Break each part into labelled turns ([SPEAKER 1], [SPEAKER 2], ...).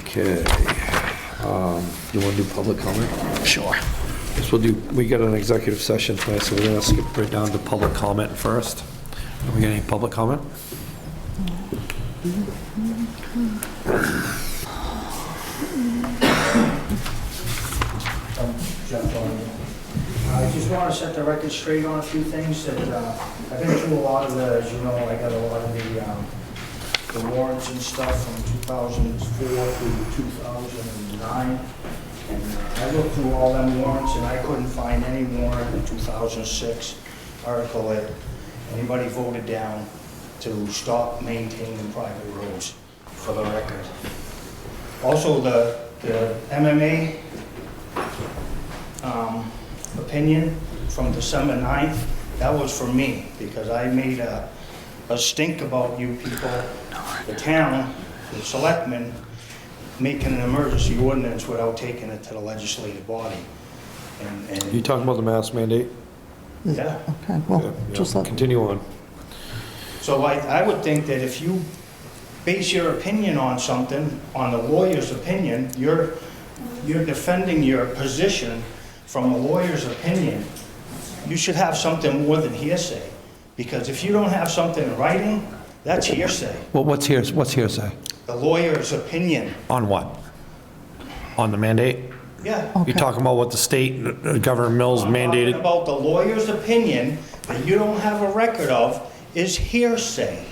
[SPEAKER 1] Okay. Um, You want to do public comment? Sure. Guess we'll do, we got an executive session tonight, so we're going to skip right down to public comment first. Have we got any public comment?
[SPEAKER 2] Um, Jeff, um, I just want to set the record straight on a few things that, uh, I've been through a lot of the, as you know, I got a lot of the, um, the warrants and stuff from 2004 through 2009. And uh, I looked through all them warrants and I couldn't find any warrant in 2006 article that anybody voted down to stop maintaining private roads, for the record. Also, the, the MMA um, opinion from December 9th, that was for me, because I made a, a stink about you people, the town, the selectmen, making an emergency ordinance without taking it to the legislative body. And,
[SPEAKER 1] You
[SPEAKER 2] and,
[SPEAKER 1] talking about the mask mandate?
[SPEAKER 2] yeah.
[SPEAKER 3] Okay,
[SPEAKER 1] Yeah,
[SPEAKER 3] well,
[SPEAKER 1] yeah.
[SPEAKER 3] just let,
[SPEAKER 1] Continue on.
[SPEAKER 2] So I, I would think that if you base your opinion on something, on the lawyer's opinion, you're, you're defending your position from a lawyer's opinion. You should have something more than hearsay, because if you don't have something in writing, that's hearsay.
[SPEAKER 1] Well, what's here, what's hearsay?
[SPEAKER 2] The lawyer's opinion,
[SPEAKER 1] On what? On the mandate?
[SPEAKER 2] yeah.
[SPEAKER 1] You
[SPEAKER 3] Okay.
[SPEAKER 1] talking about what the state, uh, Governor Mills
[SPEAKER 2] I'm talking
[SPEAKER 1] mandated?
[SPEAKER 2] About the lawyer's opinion that you don't have a record of is hearsay.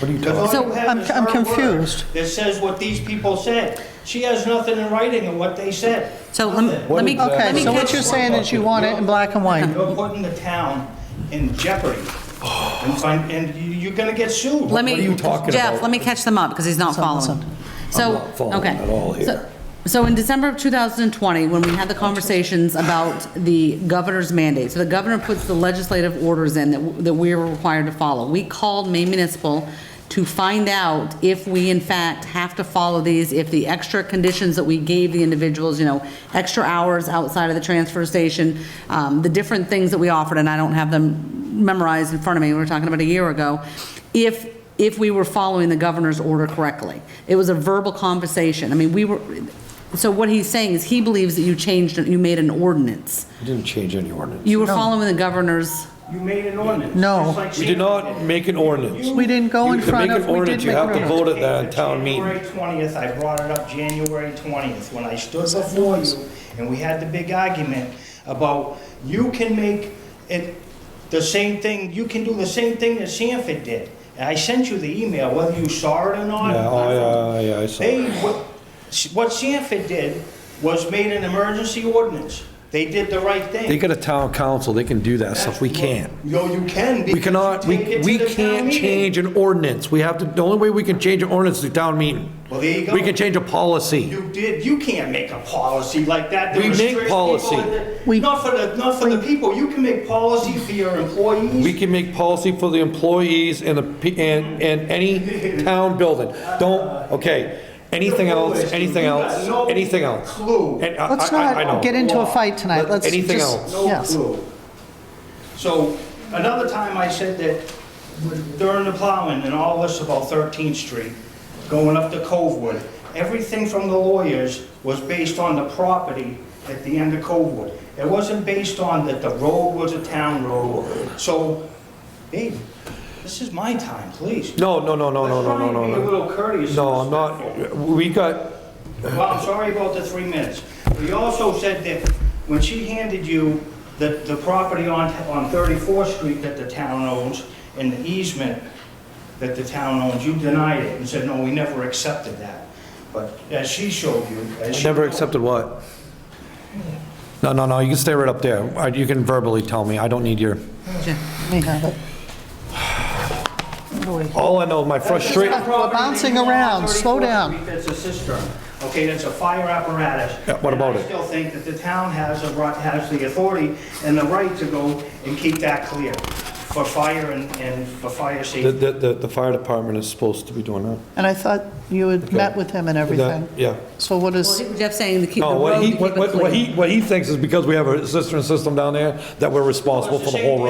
[SPEAKER 1] What are you talking?
[SPEAKER 2] Because all
[SPEAKER 3] So,
[SPEAKER 2] you have
[SPEAKER 3] I'm-
[SPEAKER 2] is her
[SPEAKER 3] I'm
[SPEAKER 2] word
[SPEAKER 3] confused.
[SPEAKER 2] That says what these people said. She has nothing in writing of what they said.
[SPEAKER 4] So let me,
[SPEAKER 2] Nothing.
[SPEAKER 4] let me, let
[SPEAKER 3] okay,
[SPEAKER 4] me
[SPEAKER 3] so what you're
[SPEAKER 4] catch,
[SPEAKER 3] saying is you want it in black and white.
[SPEAKER 2] You're putting the town in jeopardy. And find, and you- you're gonna get sued.
[SPEAKER 1] What
[SPEAKER 4] let
[SPEAKER 1] are you
[SPEAKER 4] me,
[SPEAKER 1] talking
[SPEAKER 4] Jeff,
[SPEAKER 1] about?
[SPEAKER 4] let me catch them up, because he's not
[SPEAKER 3] Some-
[SPEAKER 4] following.
[SPEAKER 3] some.
[SPEAKER 4] So,
[SPEAKER 1] not following
[SPEAKER 4] okay.
[SPEAKER 1] at all here.
[SPEAKER 4] So- So in December of 2020, when we had the conversations about the governor's mandate, so the governor puts the legislative orders in that, w- that we are required to follow. We called Maine Municipal to find out if we in fact have to follow these, if the extra conditions that we gave the individuals, you know, extra hours outside of the transfer station, um, the different things that we offered, and I don't have them memorized in front of me, we were talking about a year ago, if, if we were following the governor's order correctly. It was a verbal conversation. I mean, we were, so what he's saying is he believes that you changed, you made an ordinance.
[SPEAKER 1] You didn't change any ordinance.
[SPEAKER 4] You were following the governor's,
[SPEAKER 2] You made an ordinance.
[SPEAKER 3] No.
[SPEAKER 2] just like
[SPEAKER 1] We
[SPEAKER 2] she
[SPEAKER 1] did not make an ordinance.
[SPEAKER 3] We didn't go in
[SPEAKER 1] You can
[SPEAKER 3] front
[SPEAKER 1] make
[SPEAKER 3] of,
[SPEAKER 1] an
[SPEAKER 3] we
[SPEAKER 1] ordinance,
[SPEAKER 3] did
[SPEAKER 1] you
[SPEAKER 3] make
[SPEAKER 1] have to
[SPEAKER 3] room.
[SPEAKER 1] vote at that town meeting.
[SPEAKER 2] January 20th, I brought it up January 20th, when I stood before you, and we had the big argument about you can make it the same thing, you can do the same thing that Sanford did. And I sent you the email, whether you saw it or not.
[SPEAKER 1] Yeah, oh, yeah, yeah, I saw.
[SPEAKER 2] They, what- what Sanford did was made an emergency ordinance. They did the right thing.
[SPEAKER 1] They got a town council, they can do that stuff, we
[SPEAKER 2] That's
[SPEAKER 1] can't.
[SPEAKER 2] what- No, you can.
[SPEAKER 1] We
[SPEAKER 2] because you
[SPEAKER 1] cannot, we,
[SPEAKER 2] take it to
[SPEAKER 1] we
[SPEAKER 2] the town
[SPEAKER 1] can't
[SPEAKER 2] meeting.
[SPEAKER 1] change an ordinance, we have to, the only way we can change an ordinance is through town meeting.
[SPEAKER 2] Well, there you go.
[SPEAKER 1] We can change a policy.
[SPEAKER 2] You did, you can't make a policy like that. to
[SPEAKER 1] We make
[SPEAKER 2] restrict people
[SPEAKER 1] policy.
[SPEAKER 2] in the-
[SPEAKER 3] We-
[SPEAKER 2] Not for the, not for the people. You can make policy for your
[SPEAKER 1] We
[SPEAKER 2] employees.
[SPEAKER 1] can make policy for the employees and the, pe- and, and any town building. Don't, okay, anything else, anything else, anything else.
[SPEAKER 2] Clue.
[SPEAKER 1] And I- I-
[SPEAKER 3] Let's
[SPEAKER 1] I know.
[SPEAKER 3] not get into a fight tonight, let's just.
[SPEAKER 1] Anything else?
[SPEAKER 2] No
[SPEAKER 3] Yes.
[SPEAKER 2] clue. So another time I said that during the plowing and all this about 13th Street, going up to Covewood, everything from the lawyers was based on the property at the end of Covewood. It wasn't based on that the road was a town road. So, hey, this is my time, please.
[SPEAKER 1] No, no, no, no, no, no, no, no,
[SPEAKER 2] Let's try and be a
[SPEAKER 1] no.
[SPEAKER 2] little courteous. and
[SPEAKER 1] No, I'm
[SPEAKER 2] respectful.
[SPEAKER 1] not, we got,
[SPEAKER 2] Well, I'm sorry about the three minutes. But you also said that when she handed you the, the property on, on 34th Street that the town owns and the easement that the town owns, you denied it and said, no, we never accepted that. But as she showed you, as she...
[SPEAKER 1] Never accepted what? No, no, no, you can stay right up there. Uh, You can verbally tell me, I don't need your,
[SPEAKER 3] We have it.
[SPEAKER 1] all I know, my
[SPEAKER 2] That's
[SPEAKER 1] frustration,
[SPEAKER 2] the property
[SPEAKER 3] We're bouncing
[SPEAKER 2] that you own on
[SPEAKER 3] around. Slow
[SPEAKER 2] 34th
[SPEAKER 3] down.
[SPEAKER 2] Street That's a cistern. Okay, that's a fire apparatus.
[SPEAKER 1] Yeah, what about
[SPEAKER 2] And I
[SPEAKER 1] it?
[SPEAKER 2] still think that the town has a, right- has the authority and the right to go and keep that clear for fire and, and for fire
[SPEAKER 1] the,
[SPEAKER 2] safety.
[SPEAKER 1] the, the- the fire department is supposed to be doing that.
[SPEAKER 3] And I thought you had met with him and
[SPEAKER 1] That-
[SPEAKER 3] everything.
[SPEAKER 1] Yeah.
[SPEAKER 3] So what is,
[SPEAKER 4] Jeff's saying to keep the
[SPEAKER 1] No,
[SPEAKER 4] road,
[SPEAKER 1] what
[SPEAKER 4] to
[SPEAKER 1] he,
[SPEAKER 4] keep it
[SPEAKER 1] what, what
[SPEAKER 4] clean.
[SPEAKER 1] he, what he thinks is because we have a cistern system down there, that we're responsible for the whole road.